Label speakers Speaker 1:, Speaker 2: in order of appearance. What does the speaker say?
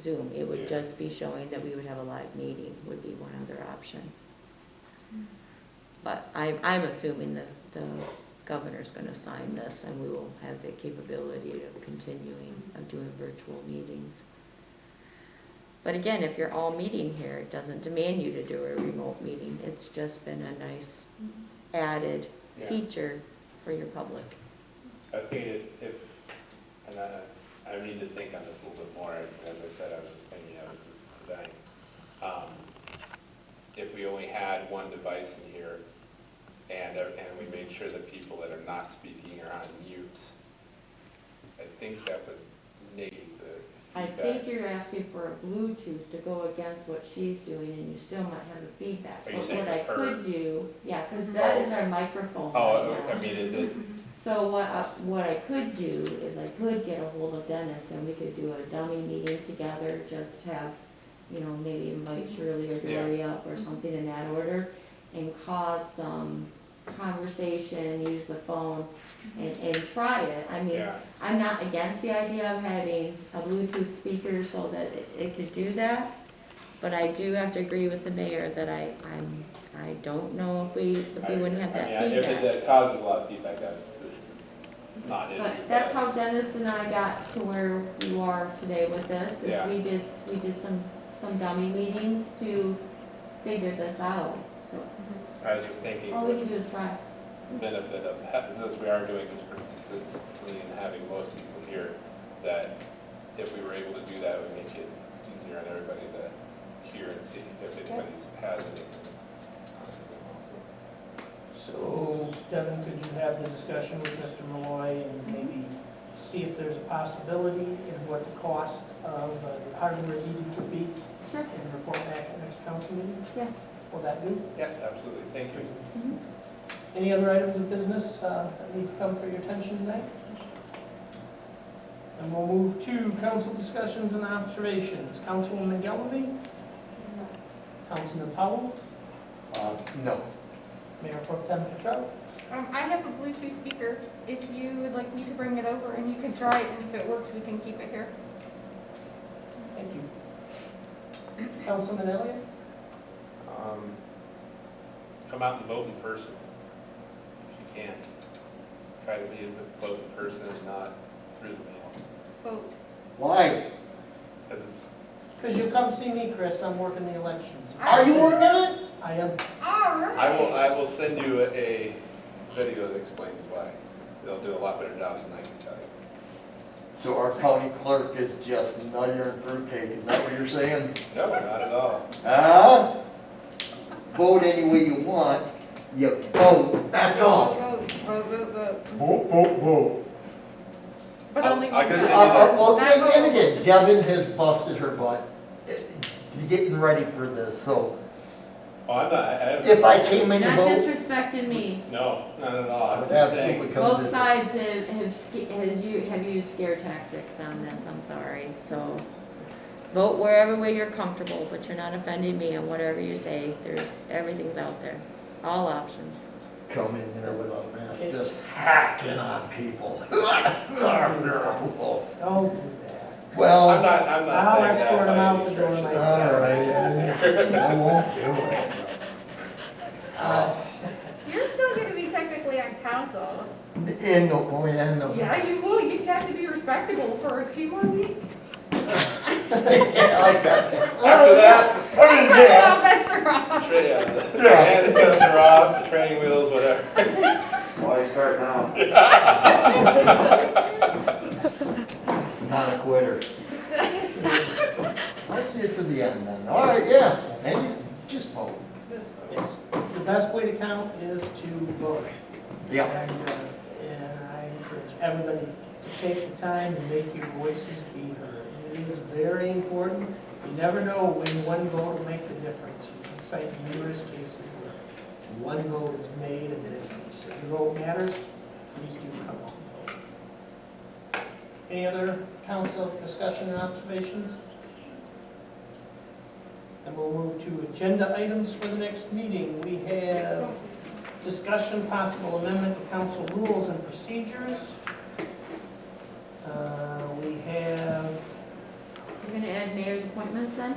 Speaker 1: Zoom. It
Speaker 2: Yeah.
Speaker 1: would just be showing that we would have a live meeting would be one other option.
Speaker 3: Um,
Speaker 1: But I, I'm assuming that the governor's gonna sign this and we will have the capability of continuing, of doing virtual meetings. But again, if you're all meeting here, it doesn't demand you to do a remote meeting. It's just been a nice added
Speaker 2: Yeah.
Speaker 1: feature for your public.
Speaker 2: I was thinking if, if, and I, I need to think on this a little bit more, as I said, I was just thinking of it this today. Um, If we only had one device in here, and, uh, and we made sure that people that are not speaking are on mute, I think that would negate the
Speaker 1: I
Speaker 2: feedback.
Speaker 1: think you're asking for a Bluetooth to go against what she's doing, and you still might have the feedback.
Speaker 2: Are you
Speaker 1: But
Speaker 2: saying
Speaker 1: what I
Speaker 2: with her?
Speaker 1: could do, yeah, because that
Speaker 2: Oh.
Speaker 1: is our microphone
Speaker 2: Oh,
Speaker 1: right
Speaker 2: I
Speaker 1: now.
Speaker 2: mean, is it,
Speaker 1: So what, I- what I could do is I could get a hold of Dennis, and we could do a dummy meeting together, just have, you know, maybe invite Shirley or
Speaker 2: Yeah.
Speaker 1: Dory up or something in that order, and cause some conversation, use the phone, and, and try it. I mean,
Speaker 2: yeah,
Speaker 1: I'm not against the idea of having a Bluetooth speaker so that it- it could do that, but I do have to agree with the mayor that I, I'm, I don't know if we, if we wouldn't have
Speaker 2: I mean,
Speaker 1: that
Speaker 2: if it
Speaker 1: feedback.
Speaker 2: that causes a lot of feedback, that, this is not an issue.
Speaker 1: But that's how Dennis and I got to where you are today with this,
Speaker 2: Yeah.
Speaker 1: is we did, we did some, some dummy meetings to figure this out. So
Speaker 2: I was just thinking.
Speaker 1: all we can do is try.
Speaker 2: benefit of, ha- since we are doing this pretty consistently and having most people here, that if we were able to do that, it would make it easier on everybody to hear and see if anybody has anything. on Zoom also.
Speaker 4: So, Devin, could you have the discussion with Mr. Malloy and maybe see if there's a possibility and what the cost of uh, hardware needed to be
Speaker 1: Sure,
Speaker 4: and report back at next council meeting?
Speaker 1: yes.
Speaker 4: Will that do?
Speaker 2: Yes, absolutely, thank you.
Speaker 4: Any other items of business uh, that need to come for your attention tonight? And we'll move to council discussions and observations. Councilwoman Galvin, Councilman Powell,
Speaker 5: Uh, No.
Speaker 4: Mayor Pro Tem Petro.
Speaker 3: Um, I have a Bluetooth speaker, if you would like me to bring it over and you can try it, and if it works, we can keep it here.
Speaker 4: Thank you. Councilman Elliott?
Speaker 2: Um, Come out and vote in person, if you can. Try to be, vote in person and not through the mail,
Speaker 3: Vote.
Speaker 5: Why?
Speaker 2: because it's
Speaker 4: Because you come see me, Chris, I'm working the elections.
Speaker 5: Are you working on it?
Speaker 4: I am,
Speaker 3: All right.
Speaker 2: I will, I will send you a- a video that explains why. They'll do a lot better job than I can tell you.
Speaker 5: So our county clerk is just nutter and fruit cake, is that what you're saying?
Speaker 2: No, not at all.
Speaker 5: Huh? Vote any way you want, you vote, that's all.
Speaker 3: Vote, vote, vote, vote.
Speaker 5: Vote, vote, vote.
Speaker 3: But
Speaker 2: I'll-
Speaker 3: only
Speaker 2: I'll
Speaker 3: one.
Speaker 5: Uh,
Speaker 2: consider
Speaker 5: uh, Well, and and again, Devin has busted her butt, uh, getting ready for this, so
Speaker 2: Oh, I'm not, I have.
Speaker 5: if I came in to
Speaker 1: Not
Speaker 5: vote,
Speaker 1: disrespecting me.
Speaker 2: No, not at all.
Speaker 5: I
Speaker 2: I'm
Speaker 5: would
Speaker 2: just saying,
Speaker 5: absolutely come
Speaker 1: Both
Speaker 5: visit.
Speaker 1: sides have, have, sca- has you, have used scare tactics on this, I'm sorry, so. Vote wherever way you're comfortable, but you're not offending me on whatever you say, there's, everything's out there, all options.
Speaker 5: Come in there with a mask, just hacking on people. Well.
Speaker 4: don't do that.
Speaker 2: I'm not, I'm
Speaker 4: I'll
Speaker 2: not saying
Speaker 4: escort
Speaker 2: that
Speaker 4: him
Speaker 2: by
Speaker 4: out
Speaker 2: any
Speaker 4: the door
Speaker 2: stretch.
Speaker 4: myself.
Speaker 5: All right, I won't do it.
Speaker 4: Uh,
Speaker 3: You're still gonna be technically on council.
Speaker 5: In, the- oh, yeah, in the-
Speaker 3: Yeah, you will, you just have to be respectable for a few more weeks.
Speaker 2: After that,
Speaker 3: Well, that's wrong.
Speaker 2: tra- uh, the handcuffs are off, the training wheels, whatever.
Speaker 5: Why start now? Not a quitter. Let's get to the end then. All right, yeah, and you just vote.
Speaker 4: yes. The best way to count is to vote.
Speaker 5: Yeah.
Speaker 4: And uh, and I encourage everybody to take the time and make your voices be heard. It is very important. You never know when one vote will make the difference. You can cite numerous cases where one vote is made and then if your vote matters, please do come on. and vote. Any other council discussion and observations? And we'll move to agenda items for the next meeting. We have Discussion, possible amendment to council rules and procedures. Uh, We have,
Speaker 1: You're gonna add mayor's appointments then?